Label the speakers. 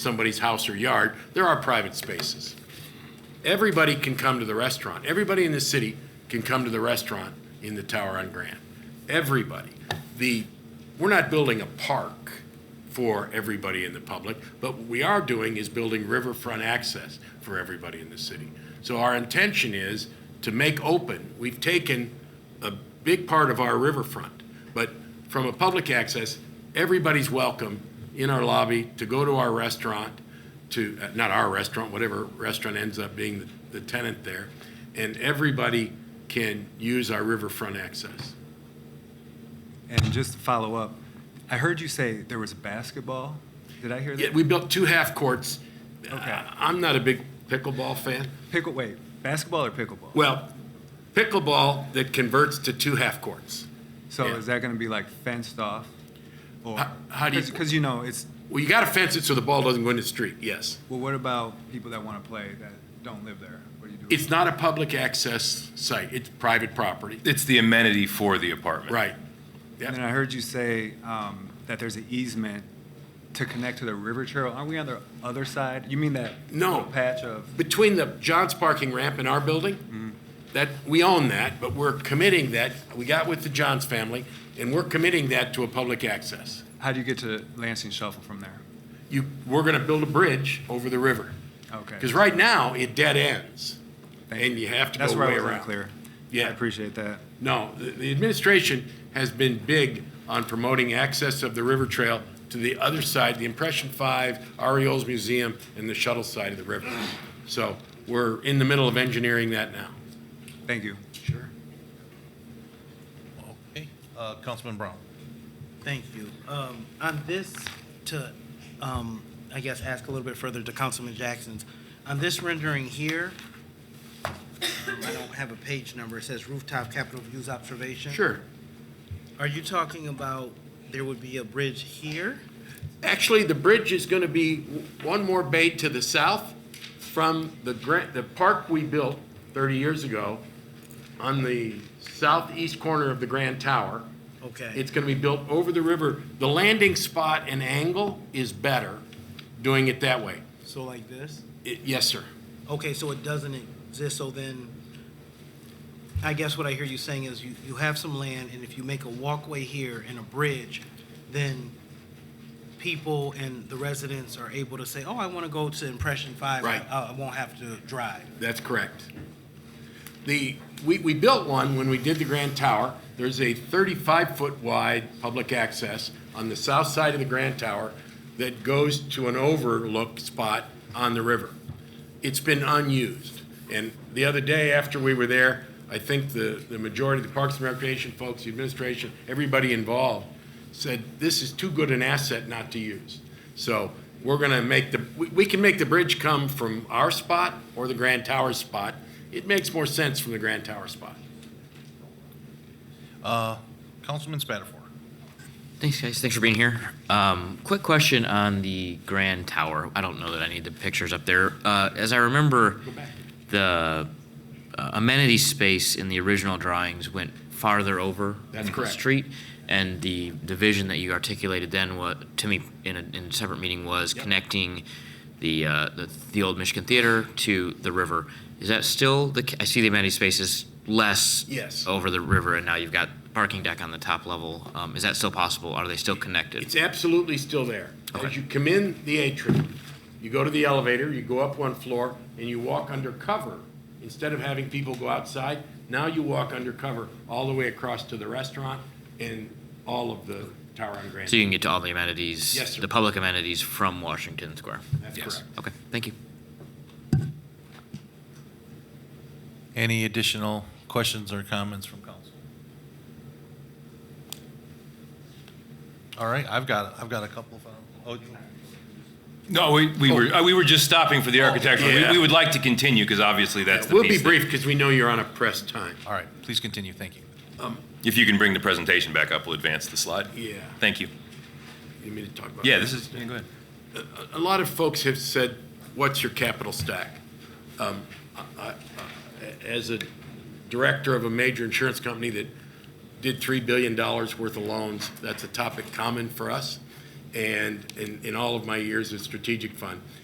Speaker 1: somebody's house or yard, there are private spaces. Everybody can come to the restaurant. Everybody in the city can come to the restaurant in the Tower on Grand. Everybody. The, we're not building a park for everybody in the public, but what we are doing is building riverfront access for everybody in the city. So our intention is to make open, we've taken a big part of our riverfront, but from a public access, everybody's welcome in our lobby to go to our restaurant, to, uh, not our restaurant, whatever restaurant ends up being the- the tenant there, and everybody can use our riverfront access.
Speaker 2: And just to follow up, I heard you say there was basketball. Did I hear
Speaker 1: Yeah,
Speaker 2: that?
Speaker 1: we built two half courts.
Speaker 2: Okay.
Speaker 1: I- I'm not a big pickleball fan.
Speaker 2: Pickle, wait, basketball or pickleball?
Speaker 1: Well, pickleball that converts to two half courts.
Speaker 2: So
Speaker 1: yeah.
Speaker 2: is that going to be like fenced off? Or,
Speaker 1: How- how do you-
Speaker 2: Because you know, it's,
Speaker 1: Well, you got to fence it so the ball doesn't go in the street, yes.
Speaker 2: well, what about people that want to play that don't live there? What do you do?
Speaker 1: It's not a public access site, it's private property.
Speaker 3: It's the amenity for the apartment.
Speaker 1: Right.
Speaker 2: And then I heard you say um, that there's an easement to connect to the river trail. Aren't we on the other side? You mean that
Speaker 1: No.
Speaker 2: little patch of,
Speaker 1: Between the John's parking ramp and our building, that, we own that, but we're committing that, we got with the Johns family, and we're committing that to a public access.
Speaker 2: how do you get to Lansing Shuffle from there?
Speaker 1: You, we're going to build a bridge over the river.
Speaker 2: Okay.
Speaker 1: Because right now, it dead ends,
Speaker 2: Thank
Speaker 1: and you have to go
Speaker 2: That's
Speaker 1: way
Speaker 2: where
Speaker 1: around.
Speaker 2: I was unclear.
Speaker 1: Yeah.
Speaker 2: I appreciate that.
Speaker 1: No, the, the administration has been big on promoting access of the river trail to the other side, the Impression Five, Ariel's Museum, and the shuttle side of the river. So we're in the middle of engineering that now.
Speaker 2: Thank you.
Speaker 1: Sure.
Speaker 4: Okay, uh, Councilman Brown.
Speaker 5: Thank you. Um, On this, to, um, I guess, ask a little bit further to Councilman Jackson's, on this rendering here, um, I don't have a page number, it says rooftop Capitol views observation.
Speaker 1: Sure.
Speaker 5: Are you talking about there would be a bridge here?
Speaker 1: Actually, the bridge is going to be w- one more bay to the south from the grant, the park we built 30 years ago on the southeast corner of the Grand Tower.
Speaker 5: Okay.
Speaker 1: It's going to be built over the river. The landing spot and angle is better doing it that way.
Speaker 5: So like this?
Speaker 1: It- Yes, sir.
Speaker 5: Okay, so it doesn't exist, so then, I guess what I hear you saying is you, you have some land, and if you make a walkway here and a bridge, then people and the residents are able to say, oh, I want to go to Impression Five. I-
Speaker 1: Right.
Speaker 5: I, I won't have to drive.
Speaker 1: That's correct. The, we, we built one when we did the Grand Tower. There's a 35-foot wide public access on the south side of the Grand Tower that goes to an overlook spot on the river. It's been unused. And the other day after we were there, I think the, the majority of the Parks and Recreation folks, the administration, everybody involved said, this is too good an asset not to use. So we're going to make the, we, we can make the bridge come from our spot or the Grand Tower spot. It makes more sense from the Grand Tower spot.
Speaker 4: Uh, Councilman Spatafor.
Speaker 6: Thanks, guys. Thanks for being here. Um, quick question on the Grand Tower. I don't know that I need the pictures up there. Uh, as I remember, the uh, amenity space in the original drawings went farther over
Speaker 1: That's
Speaker 6: the
Speaker 1: correct.
Speaker 6: street, and the division that you articulated then, what to me in a, in a separate meeting was connecting the, uh, the the old Michigan Theater to the river. Is that still the? ca- I see the amenity space is less
Speaker 1: Yes.
Speaker 6: over the river, and now you've got parking deck on the top level. Um, Is that still possible? Are they still connected?
Speaker 1: It's absolutely still there. As
Speaker 6: Okay.
Speaker 1: you come in the atrium, you go to the elevator, you go up one floor, and you walk undercover. Instead of having people go outside, now you walk undercover all the way across to the restaurant and all of the Tower on Grand.
Speaker 6: So you can get to all the amenities?
Speaker 1: Yes, sir.
Speaker 6: The public amenities from Washington Square?
Speaker 1: That's
Speaker 6: Yes.
Speaker 1: correct.
Speaker 6: Okay, thank you.
Speaker 4: Any additional questions or comments from council? All right, I've got, I've got a couple of, oh, you-
Speaker 3: No, we, we were, uh, we were just stopping for the architecture.
Speaker 1: Oh. Yeah.
Speaker 3: We, we would like to continue because obviously that's the
Speaker 1: We'll be
Speaker 3: piece that-
Speaker 1: brief because we know you're on a press time.
Speaker 4: all right, please continue, thank you.
Speaker 3: If you can bring the presentation back up, we'll advance the slide.
Speaker 1: Yeah.
Speaker 3: Thank you.
Speaker 1: You mean to talk about?
Speaker 3: Yeah, this is, yeah, go ahead.
Speaker 1: a lot of folks have said, what's your capital stack? Um, I- I- I- As a director of a major insurance company that did $3 billion worth of loans, that's a topic common for us. and in, in all of my years at Strategic Fund,